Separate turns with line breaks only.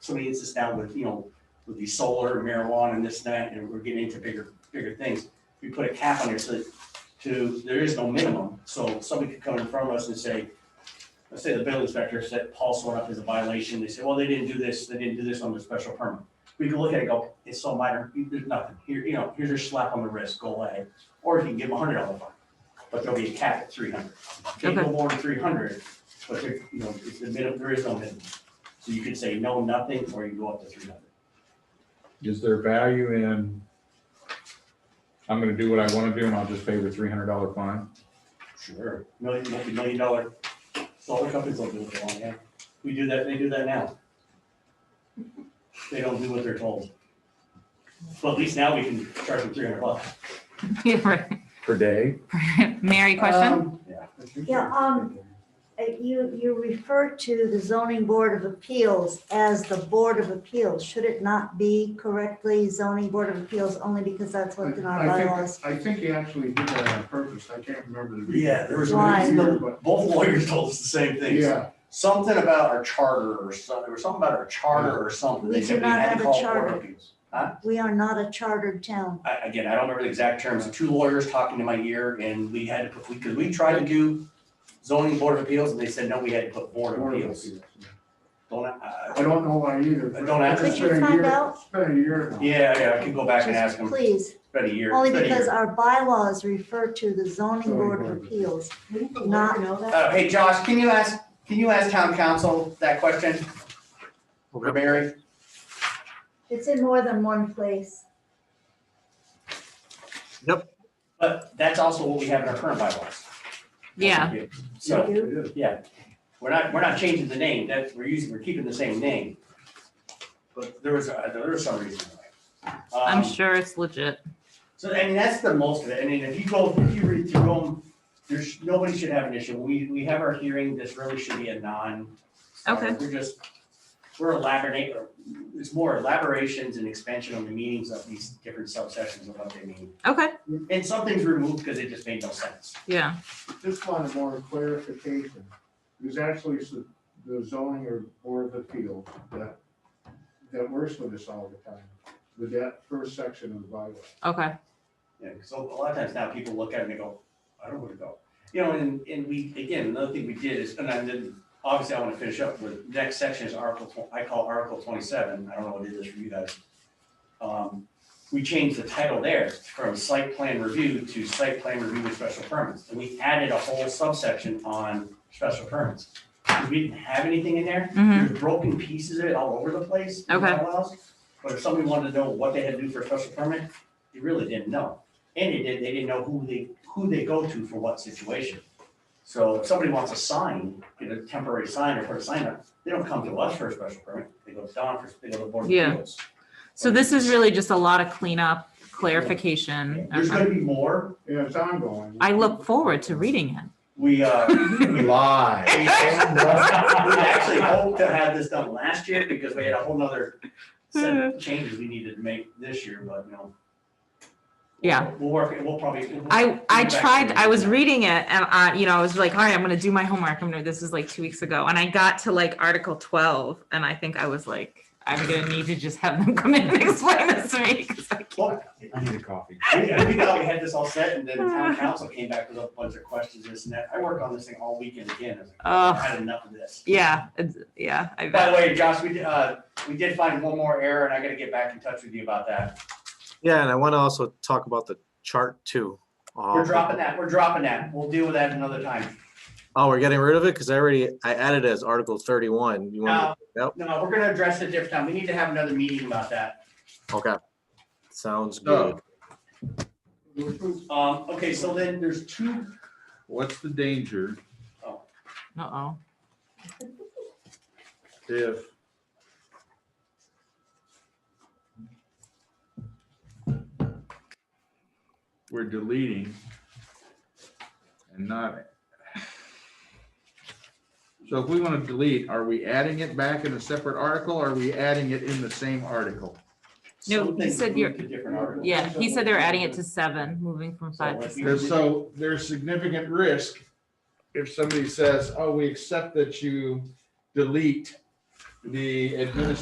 somebody hits us down with, you know, with the solar and marijuana and this and that, and we're getting into bigger, bigger things. We put a cap on there so that, to, there is no minimum, so somebody could come in front of us and say, let's say the building inspector said Paul Sword up as a violation, they say, well, they didn't do this, they didn't do this on the special permit. We can look at it, and go, it's so minor, there's nothing, here, you know, here's your slap on the wrist, go away, or you can give them a hundred dollar fine, but there'll be a cap at three hundred. Can't go more than three hundred, but there, you know, it's the minimum, there is no minimum. So you could say no, nothing, or you go up to three hundred.
Is there value in, I'm gonna do what I wanna do and I'll just pay the three hundred dollar fine?
Sure. Million, multi million dollar, solar companies don't do what they want, yeah. We do that, they do that now. They don't do what they're told. But at least now we can charge them three hundred bucks.
Yeah, right.
Per day?
Mary, question?
Um,
Yeah.
Yeah, um, uh, You, you refer to the zoning board of appeals as the board of appeals. Should it not be correctly zoning board of appeals only because that's what's in our
I think-
bylaws?
I think he actually did that on purpose. I can't remember the. reason.
Yeah, there was,
Why?
But-
both lawyers told us the same thing.
Yeah,
Something about our charter or something, there was something about our charter or something. They
We
said
do not
had to
have a
call Board of
charter.
Appeals.
We are not a chartered town.
I, again, I don't remember the exact terms, two lawyers talking to my ear and we had to put, because we tried to do zoning board of appeals and they said, no, we had to put board of
Board of
appeals.
Appeals.
Don't, uh,
I don't know why either.
I don't ask.
It's
Could you
been a
find
year-
out?
It's been a year now.
yeah, yeah, I can go back and ask
Just
them,
Please,
it's been a year.
only
it's been a
because
year.
our bylaws refer to the zoning board of appeals.
Wouldn't the
Not-
lawyer know that?
Uh, hey, Josh, can you ask, can you ask town council that question? For Mary?
It's in more than one place.
But that's also what we have in our current bylaws.
Yeah.
So.
You do?
It is.
We're not, we're not changing the name, that's, we're using, we're keeping the same name. But there was, a- there was some reason why. Um,
I'm sure it's legit.
So, I mean, that's the most of it, I mean, if you go, if you read through them, there's, nobody should have an issue, we, we have our hearing, this really should be a non.
Okay.
We're just, we're elaborating, it's more elaborations and expansion on the meanings of these different subsections of what they mean.
Okay,
And some things removed because it just made no sense.
yeah,
Just wanted more clarification. It was actually s- the zoning or board of appeals that, that works with us all the time, with that first section of the bylaw.
okay,
Yeah, because a a lot of times now people look at it and they go, I don't want to go. You know, and, and we, again, another thing we did is, and I did, obviously I want to finish up with, next section is Article, tw- I call Article twenty-seven, I don't know what it is for you guys. Um, we changed the title there from site plan review to site plan review with special permits. And we added a whole subsection on special permits. We didn't have anything in there.
Mhm.
There's broken pieces of it all over the place. in
Okay.
bylaws. But if somebody wanted to know what they had to do for a special permit, they really didn't know. And they didn't, they didn't know who they, who they go to for what situation. So if somebody wants a sign, get a temporary sign or put a sign up, they don't come to us for a special permit, they go to Don for, they go to the Board of
Yeah.
Appeals.
so this is really just a lot of cleanup, clarification.
There's
Okay.
gonna be more,
Yeah, it's ongoing.
I look forward to reading it.
we, uh,
Live.
We actually hoped to have this done last year because we had a whole nother set
Hmm.
of changes we needed to make this year, but you know.
Yeah.
We'll work, it. we'll probably. we'll-
I, I
Back to
tried, I was
the-
reading it and I, you know, I was like, all right, I'm gonna do my homework. I'm gonna, this is like two weeks ago. And I got to like Article twelve and I think I was like, I'm gonna need to just have them come in and explain this to me. 'cause I-
Well,
I need a coffee.
We we thought we had this all set and then town council came back with a bunch of questions, this and that. I worked on this thing all weekend again. I was like, I
Oh,
had enough of this.
yeah, it's- yeah, I
By
bet.
the way, Josh, we, did- uh, we did find one more error and I gotta get back in touch with you about that.
Yeah, and I want to also talk about the chart too.
We're
Um,
dropping that, we're dropping that. We'll deal with that another time.
Oh, we're getting rid of it because I already, I added it as Article 31. You
No,
want,
no, we're gonna address it different time. We need to have another meeting about that.
to- okay. Sounds
So-
good.
Um, okay, so then there's two,
What's the danger
Uh-oh.
if we're deleting and not so if we want to delete, are we adding it back in a separate article? or Are we adding it in the same article?
No,
some
he
things
said
moved
you're-
to different articles.
Yeah, he said they were adding it to seven, moving from five to.
So,
six.
Because so there's significant risk if somebody says, oh, we accept that you delete the administrative